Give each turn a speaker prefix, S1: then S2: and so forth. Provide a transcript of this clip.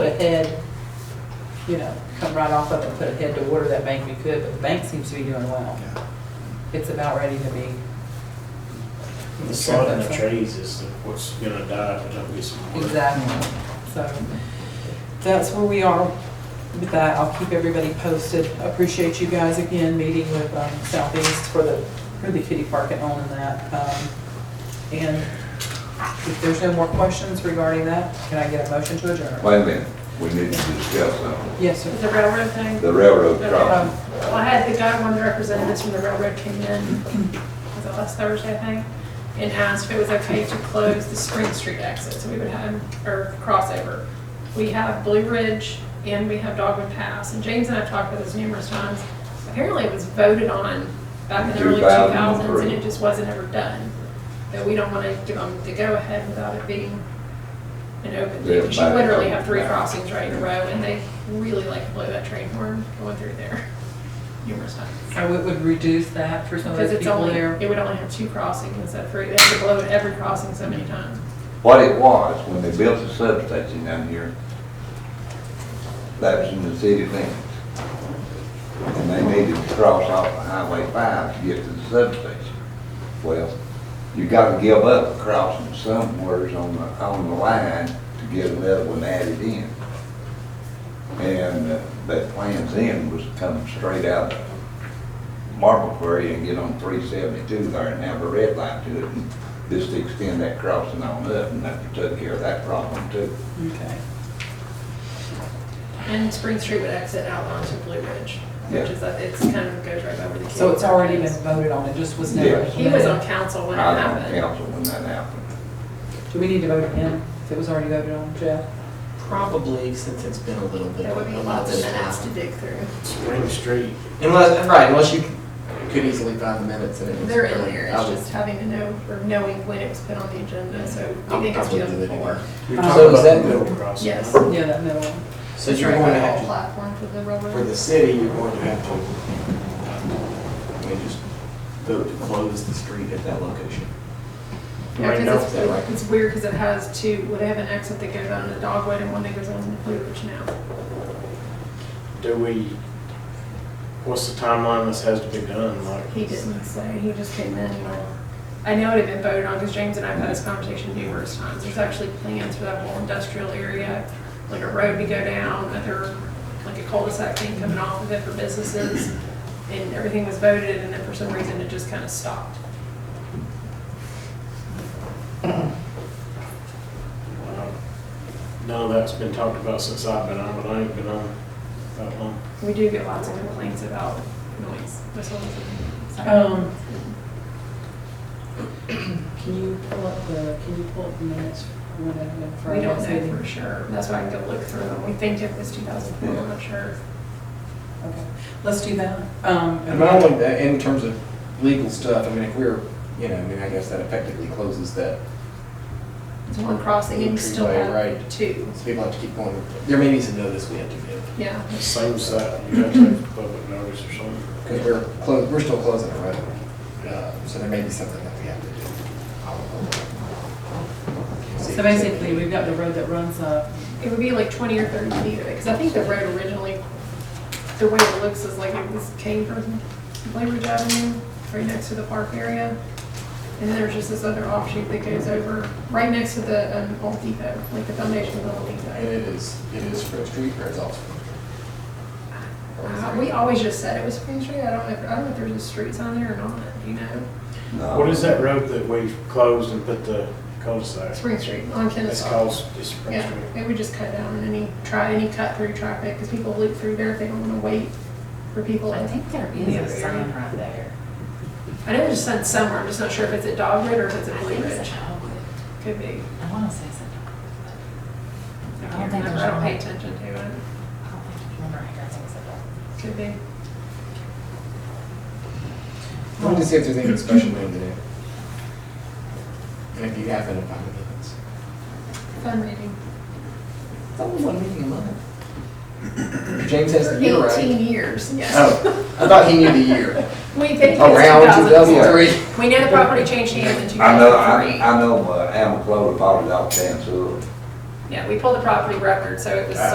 S1: a head, you know, come right off of it, put a head to water that bank we could, but the bank seems to be doing well.
S2: Yeah.
S1: It's about ready to be.
S3: The sun and the trees is what's gonna die if we don't get some water.
S1: Exactly. So that's where we are with that. I'll keep everybody posted. Appreciate you guys again meeting with um, Southeast for the, for the kitty park and owning that. Um, And if there's no more questions regarding that, can I get a motion to adjourn?
S4: Wait a minute, we need to discuss something.
S1: Yes, sir.
S5: The railroad thing?
S4: The railroad
S3: Oh.
S4: crossing.
S1: Um,
S5: Well, I had the guy, one of the representatives from the railroad came in, was it last Thursday, I think, and asked if it was okay to close the Spring Street exit, so we would have, or crossover. We have Blue Ridge and we have Dogwood Pass, and James and I've talked about this numerous times. Apparently it was voted on back in the early two
S4: 2003.
S5: thousands, and it just wasn't ever done. That we don't wanna give them the go-ahead without it being an open,
S4: Yeah,
S5: because you
S4: back.
S5: literally have three crossings right in a row, and they really like to blow that train horn going through there numerous times.
S1: So it would reduce that for some of
S5: Because
S1: those
S5: it's
S1: people
S5: only,
S1: there.
S5: it would only have two crossings instead of three, they have to blow at every crossing so many times.
S4: What it was, when they built the substation down here, that was in the city limits. And they needed to cross off of Highway five to get to the substation. Well, you gotta give up crossing somewheres on the, on the line to get another one added in. And uh, that plan's end was to come straight out of Marble Quarry and get on three seventy-two there and have a red light to it and just extend that crossing on up and that took care of that problem too.
S1: Okay.
S5: And Spring Street would exit out onto Blue Ridge,
S4: Yeah.
S5: which is, that it's kind of goes right over the.
S1: So it's already been
S5: kids.
S1: voted on, it just was never.
S4: Yes.
S5: He was on council when it
S4: I was on
S5: happened,
S4: council when that happened.
S1: Do we need to vote again if it was already voted on, Jeff?
S6: Probably, since it's been a little bit.
S5: there would be
S6: a
S5: lots
S6: bit
S5: of minutes to dig through.
S3: Spring Street,
S6: Unless, right, unless you could easily find the minutes and it was.
S5: They're in there,
S6: I
S5: it's
S6: would-
S5: just having to know, or knowing when it was put on the agenda, so
S6: I'll
S5: we think it's
S6: probably do it
S5: 2004.
S6: anyway.
S3: you're
S1: Um,
S3: talking
S6: So is
S3: about
S6: that
S3: the
S6: the-
S3: middle crossing.
S5: Uh-huh. Yes.
S1: Yeah, that middle one.
S6: So you're going to have to,
S5: Platform for the
S6: for the
S5: railroad.
S6: city, you're going to have to, I mean, just vote to close the street at that location.
S5: Yeah,
S3: Right
S5: 'cause
S6: now, right.
S5: it's, it's weird because it has two, well, they have an exit that goes on to Dogwood and one that goes on to Blue Ridge now.
S3: Do we, what's the timeline this has to be done, like?
S5: He didn't say, he just came in and I know it had been voted on because James and I have had this conversation numerous times. There's actually plans for that whole industrial area, like a road to go down, other, like a cul-de-sac thing coming off of it for businesses. And everything was voted and then for some reason it just kind of stopped.
S3: Well, None of that's been talked about since I've been on, but I ain't been on that long.
S5: We do get lots of complaints about noise. This one's-
S1: Um, Can you pull up the, Uh, can you pull up the minutes from when I've been
S5: We
S1: Friday?
S5: don't know for sure. That's why I can go look through them. We think it was 2004, I'm not sure.
S1: Okay, let's do that. Um,
S6: And not only that, in terms of legal stuff, I mean, if we're, you know, I mean, I guess that effectively closes that.
S5: It's one crossing and you still
S6: Entryway,
S5: have
S6: right.
S5: two.
S6: So people have to keep going, there may be some notice we have to give.
S5: Yeah.
S3: It seems that you have to have public notice or something.
S6: Because we're close, we're still closing the road, Uh, so there may be something that we have to do. I don't know. See-
S1: So basically, we've got the road that runs up.
S5: It would be like twenty or thirty feet of it, because I think the road originally, the way it looks is like it was came from Blue Ridge Avenue, right next to the park area. And then there's just this other offshoot that goes over, right next to the um, old depot, like the foundation of the old
S6: And
S5: depot.
S6: it is, it is Fred Street or it's also Fred Street?
S5: Uh, We always just said it was Spring Street, I don't know, if- I don't know if there's a street sign there or not, you know?
S4: No.
S3: What is that road that we closed and put the cul-de-sac?
S5: Spring Street on
S3: It's
S5: Kennesaw.
S3: called, it's Spring
S5: Yeah,
S3: Street.
S5: it would just cut down on any, try any cut through traffic, because people loop through there if they don't want to wait for people.
S7: I think there is
S5: Yeah.
S7: a sign right there.
S5: I know there's some somewhere, I'm just not sure if it's at Dogwood or if it's
S7: I
S5: at Blue
S7: think it's
S5: Ridge.
S7: a Dogwood.
S5: Could be.
S7: I want to say it's a
S5: I
S7: Dogwood. I don't
S5: can't
S7: think
S5: remember,
S7: there's
S5: I don't pay
S7: one.
S5: attention to it.
S7: but I don't think, remember, I heard it was a Dogwood.
S5: Could be.
S6: Let me just see if there's anything special we need to do. And if you happen to find anything.
S5: Fun reading.
S6: It's only one meeting a month. James has the year
S5: For
S6: right.
S5: Eighteen years, yes.
S6: Oh, I thought he knew the year.
S5: We think it's
S6: Around
S5: 2004.
S6: 2003.
S5: We know the property changed hands in two
S4: I know,
S5: thousand
S4: I,
S6: Uh-huh.
S5: three.
S4: I know, uh, Alan Clover bought it off Dan Sewell.
S6: Uh-huh.
S5: Yeah, we pulled the property record, so it was